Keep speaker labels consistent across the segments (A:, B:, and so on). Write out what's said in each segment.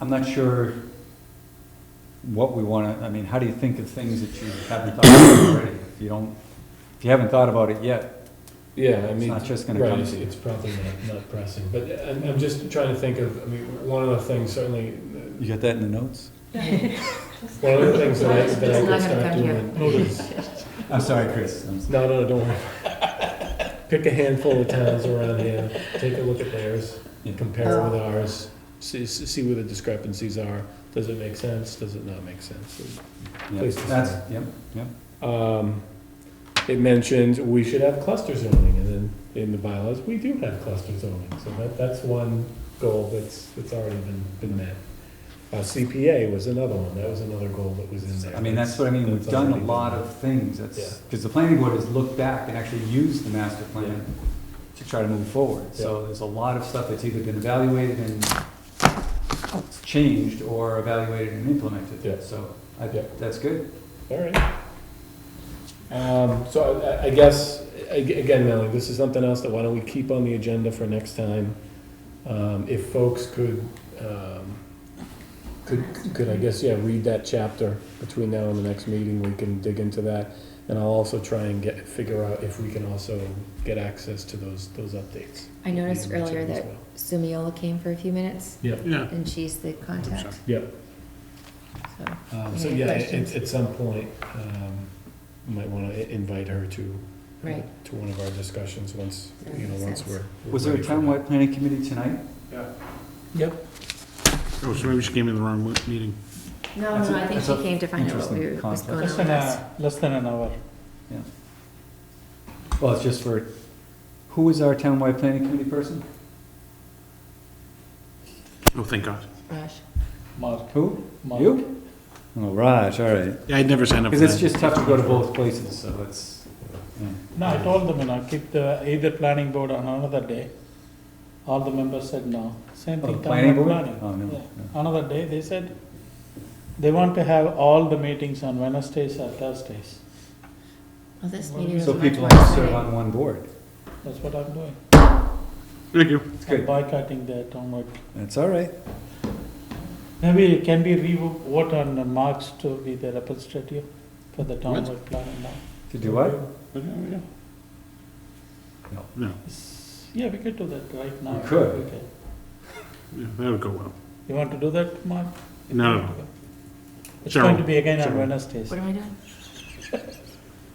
A: I'm not sure what we wanna, I mean, how do you think of things that you haven't thought about already? If you don't, if you haven't thought about it yet,
B: Yeah, I
A: it's
B: mean,
A: not just gonna
B: right,
A: come
B: it's,
A: to you.
B: it's probably not, not pressing, but uh, I'm, I'm just trying to think of, I mean, one of the things certainly,
A: You got that in the notes?
B: one of the things that I, that I
C: It's
B: could
C: not gonna
B: start
C: come here.
B: doing is,
A: I'm sorry, Chris. I'm sorry.
B: no, no, don't worry. Pick a handful of towns around here, take a look at theirs,
A: Yeah.
B: compare
C: Oh.
B: with ours, see, see where the discrepancies are. Does it make sense? Does it not make sense?
A: Yeah,
B: Please.
A: That's, yep, yep.
B: Um, it mentions we should have cluster zoning, and then in the bylaws, we do have cluster zoning, so that, that's one goal that's, that's already been, been met. Uh, CPA was another one, that was another goal that was in there.
A: I mean, that's what I mean, we've
B: That's
A: done a
B: already
A: lot of things, that's, because the planning board has looked back and actually used the master plan to try to move forward, so there's a lot of stuff that's either been evaluated and it's changed, or evaluated and
B: Yeah.
A: implemented, so I,
B: Yeah.
A: that's good.
B: All right. Um, so I- I, I guess, a- again, Melanie, this is something else that why don't we keep on the agenda for next time? Um, if folks could, um, could, could, I guess, yeah, read that chapter between now and the next meeting, we can dig into that. And I'll also try and get, figure out if we can also get access to those, those updates.
C: I noticed
B: These are
C: earlier
B: as
C: that
B: well.
C: Sumiola came for a few minutes,
B: Yep.
D: Yeah.
C: and she's the contact,
B: Yep.
C: so.
B: Um, so
C: Any
B: yeah,
C: questions?
B: at, at some point, um, we might wanna i- invite her to.
C: Right.
B: To one of our discussions, once,
C: That
B: you know,
C: makes
B: once
C: sense.
B: we're. we're
A: Was there a
B: ready for that.
A: townwide planning committee tonight?
B: Yep.
D: Oh, so maybe she came to the wrong meeting.
C: No,
A: That's
C: no,
A: a-
C: I think
A: that's
C: she
A: a
C: came to find out what we,
A: interesting uh,
C: were- what's
A: concept.
C: going on
E: Less
C: with
E: than
C: us.
E: a, less than an hour.
A: Well, it's just for, who is our townwide planning committee person?
D: Oh, thank God.
C: Rush.
E: Mark,
A: Who?
E: Mark.
A: You? Oh, Raj, all right.
D: Yeah, I'd never signed up for
A: Because it's
D: that.
A: just tough to go to both places, so it's, yeah.
E: No, I told them, you know, keep the, either planning board on another day. All the members said no. Same
A: Oh,
E: thing.
A: the planning
E: town
A: board?
E: planning.
A: Oh, no,
E: Yeah.
A: no.
E: Another day, eh, they said, they want to have all the meetings on Wednesdays or Thursdays.
C: Well, this
E: Well,
C: meeting was
A: So
C: much
A: people
C: more
A: serve
C: exciting.
A: on one board.
E: That's what I'm doing.
D: Thank you.
A: It's
E: I'm
A: good.
E: boycotting the townwide.
A: That's all right.
E: Maybe it can we re-vote on Marks to be the representative for the townwide planning now?
A: To do what?
D: Okay, yeah.
A: No.
D: No,
E: It's- Yeah, we could do that right now.
A: We could.
E: Okay.
D: yeah, that would go well.
E: You want to do that, Mark?
D: No, no,
E: It's
D: Sure.
E: going to be again on
D: Sure.
E: Wednesdays.
C: What am I doing?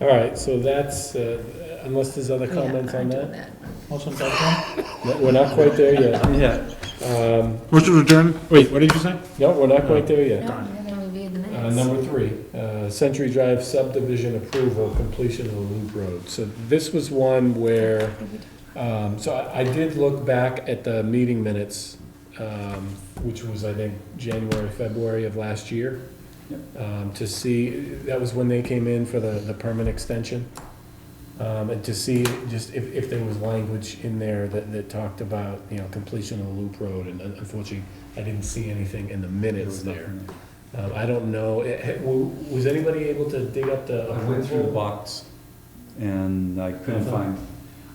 B: All right, so that's, uh, unless there's other
C: Oh, Yeah,
B: comments
C: I'm
B: on that?
C: doing that.
E: Motion to adjourn?
B: No, We're not quite there yet.
A: Yeah.
B: Um,
D: Motion to adjourn? Wait, what did you say?
B: no, we're not quite there yet.
C: No, we haven't reviewed the
B: Uh,
C: minutes.
B: number three, uh, Century Drive subdivision approval, completion of the loop road. So this was one where, um, so I, I did look back at the meeting minutes, um, which was, I think, January, February of last year. Um, to see, that was when they came in for the, the permit extension. Um, and to see just if, if there was language in there that, that talked about, you know, completion of the loop road. And unfortunately, I didn't see anything in the minutes there. Um, I don't know, Eh, eh, w- was anybody able to dig up the
A: I went through the
B: approval?
A: box and I couldn't
B: Nothing?
A: find,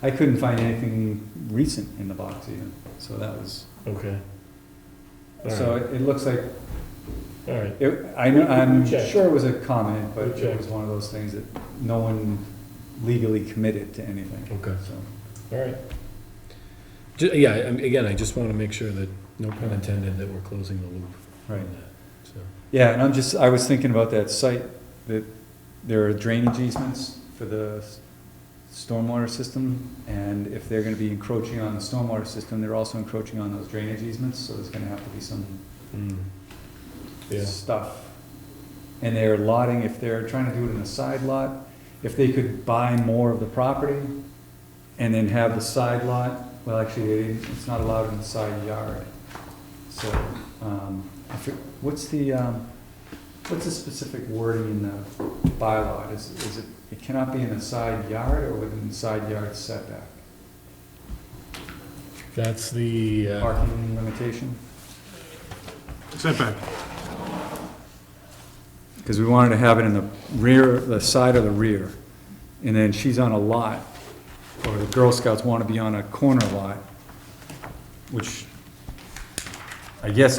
A: I couldn't find anything recent in the box even, so that was,
B: Okay.
A: so it, it looks like,
B: All right,
A: it, I know, I'm
B: Check.
A: sure it was a comment, but
B: Check.
A: it was one of those things that no one legally committed to anything,
B: okay,
A: so.
B: all right. Ju- Yeah, I- I'm- again, I just want to make sure that, no pun intended, that we're closing the loop
A: Right.
B: on that, so.
A: Yeah, and I'm just, I was thinking about that site, that there are drainage easements for the s- stormwater system, and if they're gonna be encroaching on the stormwater system, they're also encroaching on those drainage easements, so there's gonna have to be some
B: mm. Yeah,
A: stuff. And they're lotting, if they're trying to do it in a side lot, if they could buy more of the property and then have the side lot, well, actually, they- it's not allowed in the side yard. So, um, I fo- what's the, um, what's the specific wording in the bylaw? Is, is it, it cannot be in a side yard or within the side yard setback?
B: that's the, uh,
A: Parking limitation?
D: Setback.
A: Because we wanted to have it in the rear, the side of the rear, and then she's on a lot, or the Girl Scouts want to be on a corner lot, which I guess